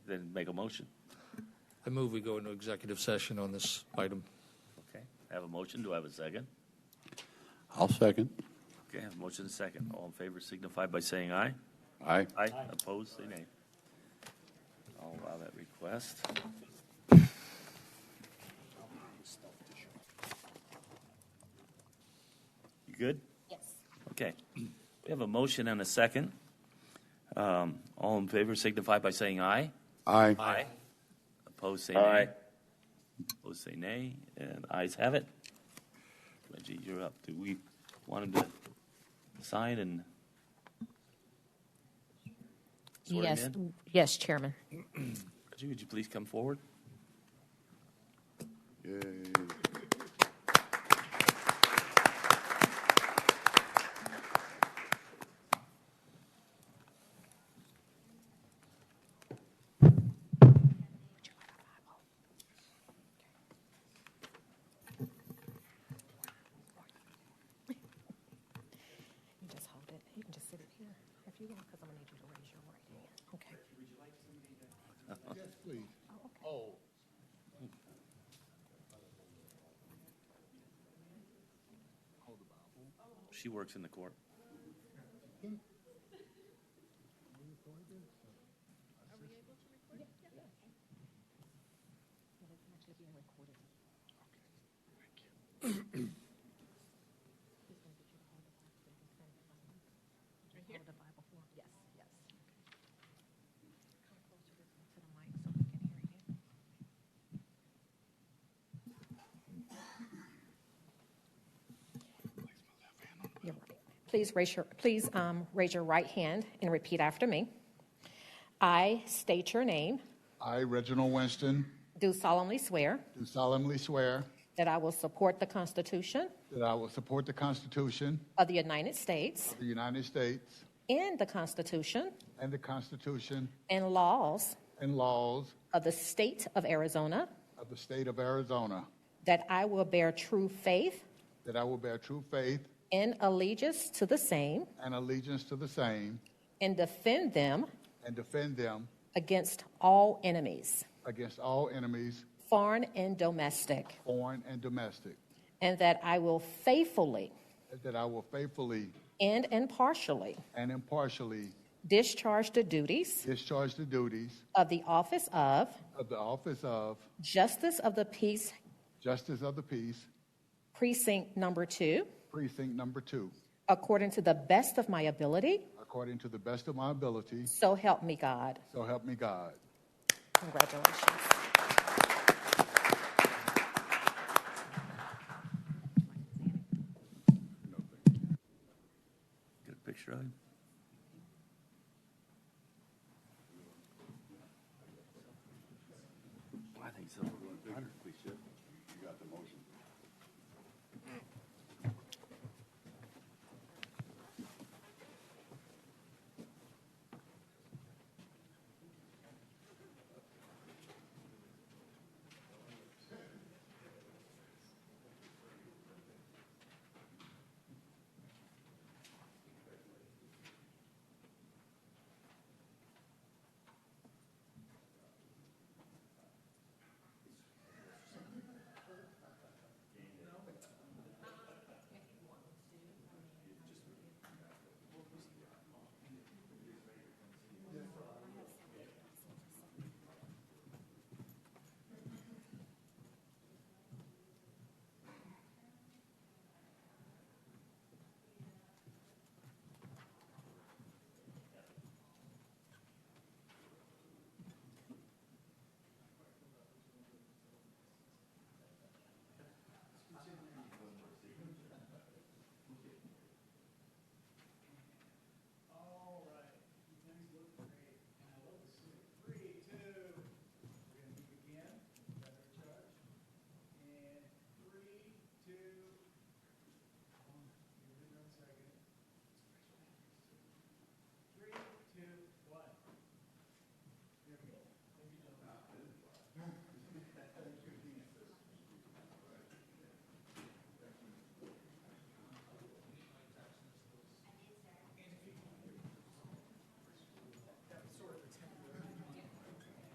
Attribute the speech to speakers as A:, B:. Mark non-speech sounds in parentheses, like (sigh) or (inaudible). A: then make a motion.
B: I move we go into executive session on this item.
A: Okay, I have a motion, do I have a second?
C: I'll second.
A: Okay, I have a motion and a second. All in favor signify by saying aye.
C: Aye.
A: Aye. Opposed, say nay. I'll allow that request. You good?
D: Yes.
A: Okay. We have a motion and a second. Um, All in favor signify by saying aye.
C: Aye.
A: Aye. Opposed, say nay. Opposed, say nay, and ayes have it. Reggie, you're up. Do we want him to sign and? swear him
D: Yes,
A: in?
D: yes, Chairman.
A: Reggie, would you please come forward? (laughs)
D: You just hold it. You can just sit it here if you want, because I'm gonna need you to raise your right hand. Okay. Oh,
A: She works in the court.
D: Hold the Bible for Yes, yes. Come closer to to the mic so we can hear you. You're right. Please raise your, please um, raise your right hand and repeat after me. I state your name,
E: I, Reginald Winston,
D: do solemnly swear
E: do solemnly swear
D: that I will support the Constitution
E: that I will support the Constitution
D: of the United States
E: of the United States
D: and the Constitution
E: and the Constitution
D: and laws
E: and laws
D: of the state of Arizona,
E: of the state of Arizona,
D: that I will bear true faith
E: that I will bear true faith
D: and allegiance to the same
E: and allegiance to the same
D: and defend them
E: and defend them
D: against all enemies,
E: against all enemies,
D: foreign and domestic,
E: foreign and domestic,
D: and that I will faithfully
E: that I will faithfully
D: and impartially
E: and impartially
D: discharge the duties
E: discharge the duties
D: of the office of
E: of the office of
D: Justice of the Peace
E: Justice of the Peace,
D: Precinct Number Two
E: Precinct Number Two,
D: according to the best of my ability.
E: according to the best of my ability,
D: So help me God.
E: so help me God.
D: Congratulations.
A: Get a picture of him.